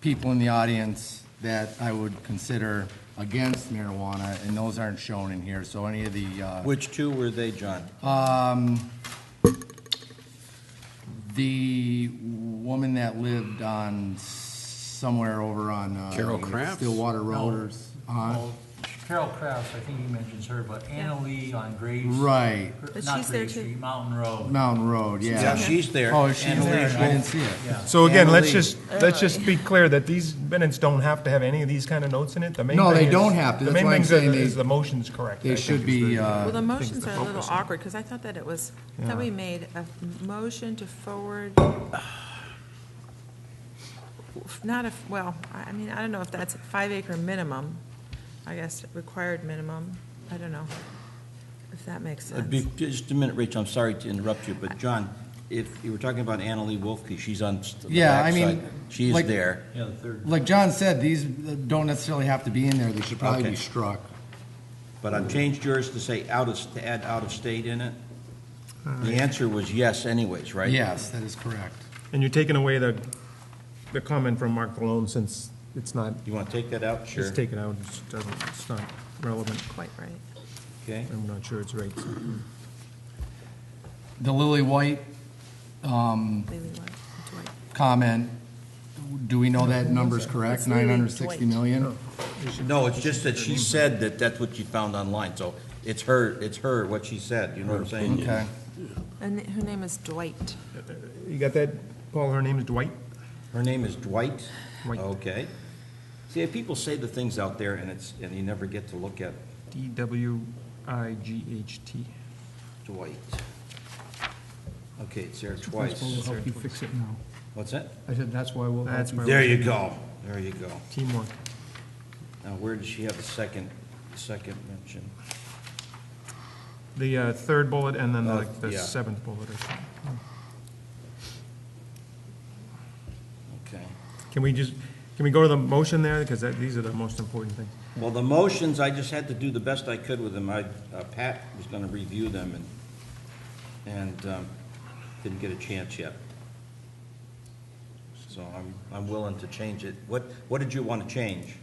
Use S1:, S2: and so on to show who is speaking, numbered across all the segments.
S1: people in the audience that I would consider against marijuana, and those aren't shown in here, so any of the, uh,
S2: Which two were they, John?
S1: Um, the woman that lived on somewhere over on, uh.
S3: Carol Kraft?
S1: Stillwater Road or, s- huh?
S4: Well, Carol Kraus, I think he mentions her, but Anna Lee on Graves.
S1: Right,
S4: her-
S5: But
S4: Not
S5: she's there
S4: Graves
S5: too.
S4: Street, Mountain Road.
S1: Mountain Road,
S2: Yeah,
S1: yeah.
S2: she's there.
S1: Oh, she's
S2: Anna
S1: there,
S2: Lee's
S1: I
S2: home.
S1: didn't see it.
S4: Yeah.
S6: So again, let's
S1: Annalee.
S6: just, let's just be clear that these minutes don't have to have any of these kind of notes in it. The main
S1: No, they
S6: thing is-
S1: don't have to.
S6: The
S1: That's
S6: main
S1: why I'm
S6: thing is that-
S1: saying they-
S6: is the motion's correct. I
S1: They
S6: think is
S1: should be,
S6: the-
S1: uh,
S5: Well, the motions
S6: to
S5: are a little
S6: focus on.
S5: awkward, because I thought that it was, I thought we made a motion to forward, not a, well, I I mean, I don't know if that's five acre minimum, I guess, required minimum, I don't know, if that makes
S2: Uh, be-
S5: sense.
S2: Just a minute, Rachel, I'm sorry to interrupt you, but John, if you were talking about Anna Lee Wolfke, she's on s- the
S1: Yeah, I mean,
S2: backside. She is
S1: like-
S2: there.
S4: Yeah, the third.
S1: Like John said, these don't necessarily have to be in there, they should probably be
S2: Okay.
S1: struck.
S2: But I've changed yours to say out of, to add out of state in it. The answer was yes anyways, right?
S1: Yes, that is correct.
S6: And you're taking away the, the comment from Mark Malone since it's not,
S2: You want to take that out? Sure.
S6: just take it out, it's doesn't, it's not relevant.
S5: Quite right.
S2: Okay.
S6: I'm not sure it's right. so.
S1: The Lily White
S5: Maybe Dwight- Dwight.
S1: comment, do we know that number's correct,
S5: It's Lily
S1: nine hundred sixty
S5: Dwight.
S1: million?
S2: No, it's just that she said that that's what she found online, so it's her, it's her, what she said, you know what I'm saying?
S1: Okay,
S5: And her name is Dwight.
S6: You got that, Paul, her name is Dwight?
S2: Her name is Dwight?
S6: Dwight.
S1: Oh.
S2: Okay. See, if people say the things out there and it's, and you never get to look at
S6: D-W-I-G-H-T.
S2: Dwight. Okay, it's there twice.
S7: Principal will help you fix it now.
S2: What's that?
S7: I said, that's why we'll help
S6: That's
S7: you.
S6: where
S2: There
S6: we,
S2: you go. There you go.
S6: teamwork.
S2: Now, where does she have the second, the second mention?
S6: The uh, third bullet and then
S2: Uh,
S6: like the
S2: yeah.
S6: seventh bullet or something.
S2: Okay.
S6: Can we just, can we go to the motion there? Because that, these are the most important things.
S2: Well, the motions, I just had to do the best I could with them. I, uh, Pat was gonna review them and, and, um, didn't get a chance yet. So I'm, I'm willing to change it. What, what did you want to change?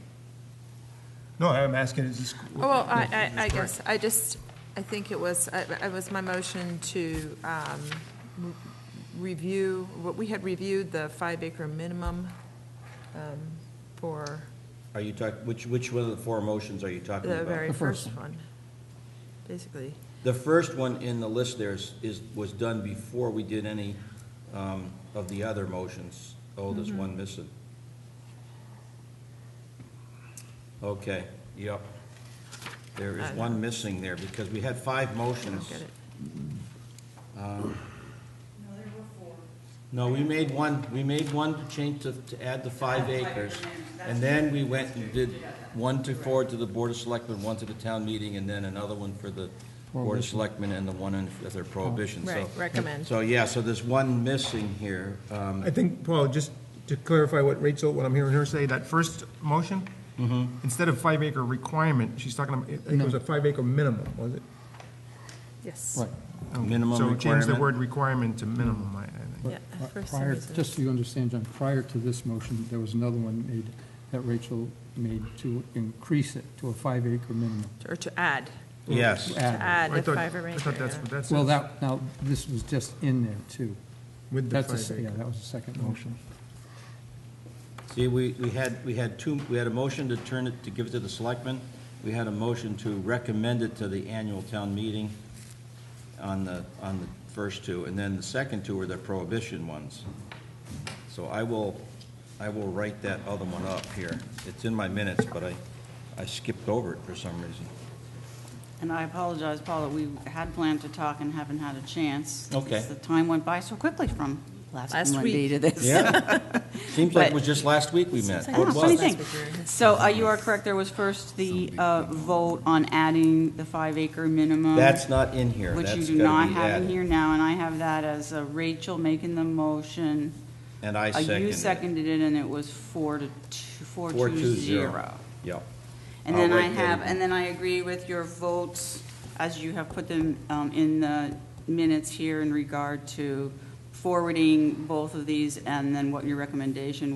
S6: No, I'm asking, is this?
S5: Oh, Well, I, I, I guess, I just, I think it was, I- I was my motion to um, re- review, what, we had reviewed the five acre minimum um, for
S2: Are you talk, which, which one of the four motions are you talking
S5: the
S2: about?
S5: very
S7: The first
S5: first one, basically.
S2: The first one in the list there is, is, was done before we did any, um, of the other motions. Oh,
S5: Mm-hmm.
S2: there's one missing. Okay, yep. There is
S5: I-
S2: one missing there, because we had five
S5: I
S2: motions.
S5: don't get it.
S2: No, we made one, we made one to change to, to add the five acres. And then we went and did one to forward to the Board of Selectmen, one to the town meeting, and then another one for the Board of Selectmen and the one in, for their prohibition, so.
S5: Right, recommend.
S2: So, yeah, so there's one missing here. Um,
S7: Uh,
S6: I think, Paul, just to clarify what Rachel, what I'm hearing her say, that first motion, instead of five acre requirement, she's talking, about- I think it was a five acre minimum, was it?
S5: Yes.
S7: Right.
S2: Minimum
S6: So change the
S2: requirement.
S6: word requirement to minimum, I, I think.
S5: Yeah,
S7: Pri-
S5: for some
S7: Prior,
S5: reason.
S7: just so you understand, John, prior to this motion, there was another one made, that Rachel made to increase it to a five acre minimum.
S5: Or to add,
S2: Yes,
S7: To
S5: to
S7: add.
S5: add
S6: I
S5: the
S6: thought-
S5: five acre.
S6: I thought that's what that
S7: Well,
S6: says,
S7: that, now, this was just in there too.
S6: With the
S7: That's a
S6: five
S7: s-
S6: acre.
S7: Yeah, that was the second motion.
S2: see, we, we had, we had two, we had a motion to turn it, to give it to the selectmen. We had a motion to recommend it to the annual town meeting on the, on the first two, and then the second two were the prohibition ones. So I will, I will write that other one up here. It's in my minutes, but I, I skipped over it for some reason.
S8: And I apologize, Paula, we had planned to talk and haven't had a chance.
S2: Okay.
S8: The time went by so quickly from
S5: Last
S8: last Monday to this.
S2: Yeah. Seems like it
S8: But-
S2: was just last week we met.
S8: I know,
S2: It was.
S8: funny thing. So uh, you are correct, there was first the uh, vote on adding the five acre minimum.
S2: That's not in here.
S8: Which you
S2: That's
S8: do
S2: gotta
S8: not
S2: be
S8: have in
S2: added.
S8: here now, and I have that as uh, Rachel making the motion.
S2: And I
S8: Uh, You
S2: seconded it.
S8: seconded it, and it was four to two, four
S2: Four
S8: to
S2: two zero.
S8: zero.
S2: Yep.
S8: And
S2: I'll
S8: then I
S2: write that
S8: have,
S2: in.
S8: and then I agree with your votes as you have put them um, in the minutes here in regard to forwarding both of these and then what your recommendation